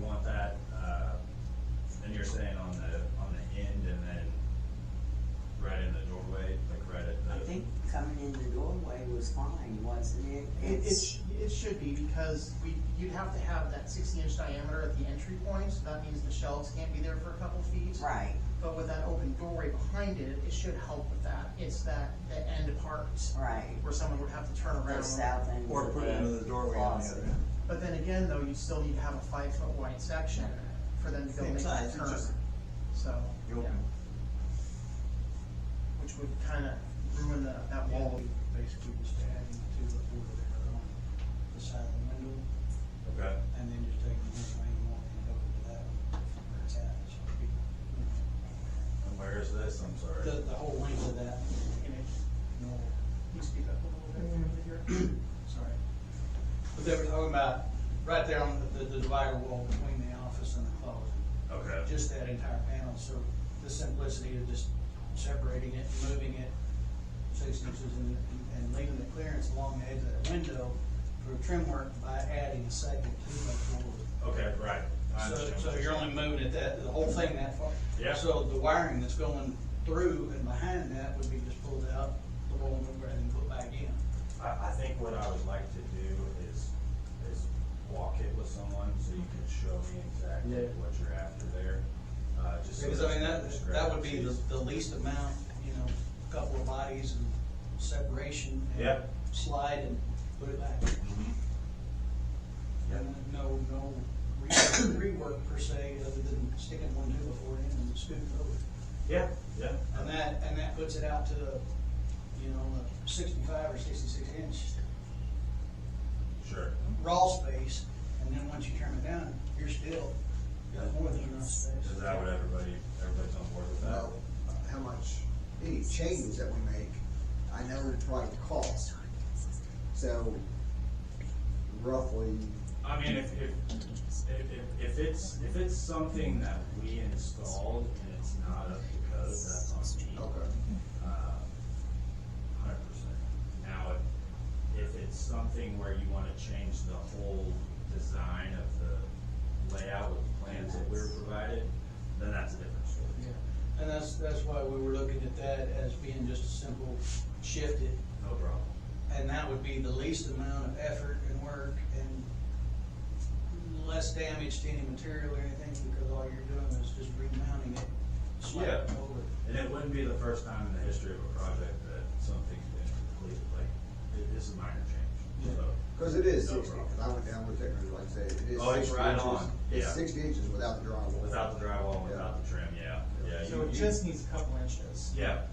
want that, uh, and you're saying on the, on the end and then right in the doorway, like right at the. I think coming in the doorway was fine, wasn't it? It, it, sh- it should be, because we, you'd have to have that sixty inch diameter at the entry point, so that means the shelves can't be there for a couple feet. Right, But with that open doorway behind it, it should help with that, it's that, the end part, right. where someone would have to turn The around. south end. Or of put it into the doorway on the closet. other end. But then again, though, you still need to have a five foot wide section for them to go Same make size, that it's turn, just- so, yeah. You open. Which would kinda ruin the, that Yeah, wall. we basically just adding to the border there on the side of the window, Okay, and then just taking this main one and over to that one where it's at. so it'd be- and where is this, I'm sorry? The, the whole length of that, Can I- no, can you speak up a little bit here? sorry. But they were talking about, right there on the, the divider wall between the office and the closet, Okay, just that entire panel, so the simplicity of just separating it, moving it six inches and, and leaving the clearance along the edge of that window for trim work by adding a second to the door. okay, right. I So, understand so what you're only moving it that, the whole thing that far? Yeah. So the wiring that's going through and behind that would be just pulled out, the wall over and put back in. I, I think what I would like to do is, is walk it with someone so you can show me exactly Yeah. what you're after there. Uh, just. so Because I mean, there's no that, that would be the, discrepancies. the least amount, you know, couple of bodies and separation. and Yeah. Slide and put it back. Yeah. And no, no rework rework per se, other than sticking one two before it and scooting it over. Yeah, yeah. And that, and that puts it out to, you know, a sixty-five or sixty-six inch Sure. raw space, and then once you turn it down, you're still got more than enough space. Is that what everybody, everybody's on board with that? about uh, how much, any changes that we make, I know probably the cost. So roughly, I mean, if, if, if, if- if it's, if it's something that we installed and it's not up to code, that's on me. Uh, okay, Hundred percent. Now, if, if it's something where you wanna change the whole design of the layout with the plans that we were provided, then that's a different story. Yeah. And that's, that's why we were looking at that as being just a simple shift it, No problem. and that would be the least amount of effort and work and less damage to any material or anything, because all you're doing is just remounting it, sliding Yeah. over. And it wouldn't be the first time in the history of a project that something's been completed, like, it- this is a minor change, so. cause it is No sixty, cause I went down with it, and like I said, it is. Oh, it's 60 right inches. on, yeah. It's sixty inches without the drywall. Without the drywall, and without the trim, yeah, yeah. you- So it you- just needs a couple inches, Yeah,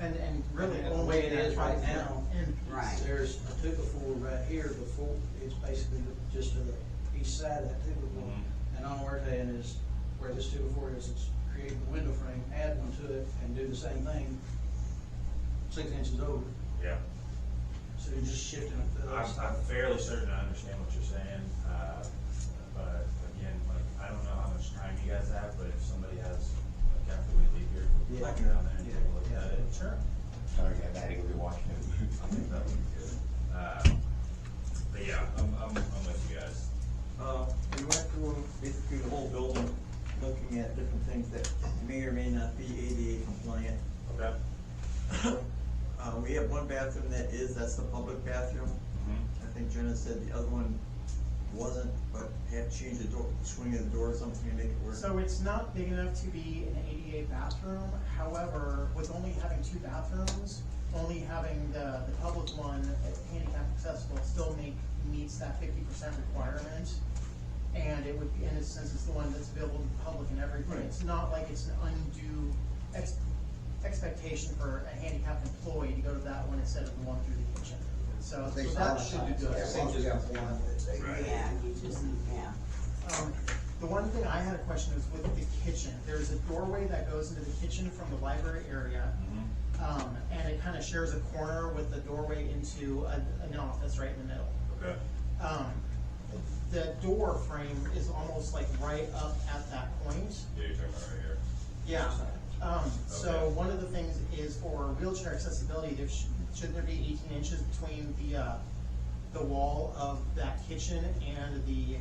and, and Really, really the way only it is that right five now. foot end piece. Right. There's a two before right here before, it's basically just to the east side of that two before. Mhm. And all we're doing is, where this two before is, it's creating the window frame, add one to it and do the same thing, six inches over. yeah. So you're just shifting it. I'm, I'm fairly certain I understand what you're saying, uh, but again, like, I don't know how much time you guys have, but if somebody has, like, after we leave here, we'll Yeah. go down there and take a look at it. Sure. Sorry, I had to go be watching I it. think that would be good. Uh, But yeah, I'm, I'm, I'm with you guys. Uh, we went through basically the whole building, looking at different things that may or may not be ADA compliant. Okay. Uh, we have one bathroom that is, that's the public bathroom. Mm-hmm. I think Jenna said the other one wasn't, but had to change the door, swing of the door or something to make it work. So it's not big enough to be an ADA bathroom, however, with only having two bathrooms, only having the, the public one as handicap accessible still make, meets that fifty percent requirement. And it would, be in a sense, it's the one that's available to the public and everything, Right. it's not like it's an undue ex- expectation for a handicapped employee to go to that one instead of the one through the kitchen. So, I so think that so. should be good. Yeah, as long as we have one, they- Right. Yeah, you just, need- yeah. Um, The one thing I had a question is with the kitchen, there's a doorway that goes into the kitchen from the library area. Mhm. Um, and it kind of shares a corner with the doorway into a- an office right in the middle. Okay. Um, the door frame is almost like right up at that point. Yeah, you're talking about right here. Yeah, um, so Okay. one of the things is for wheelchair accessibility, there should, shouldn't there be eighteen inches between the, uh, the wall of that kitchen and the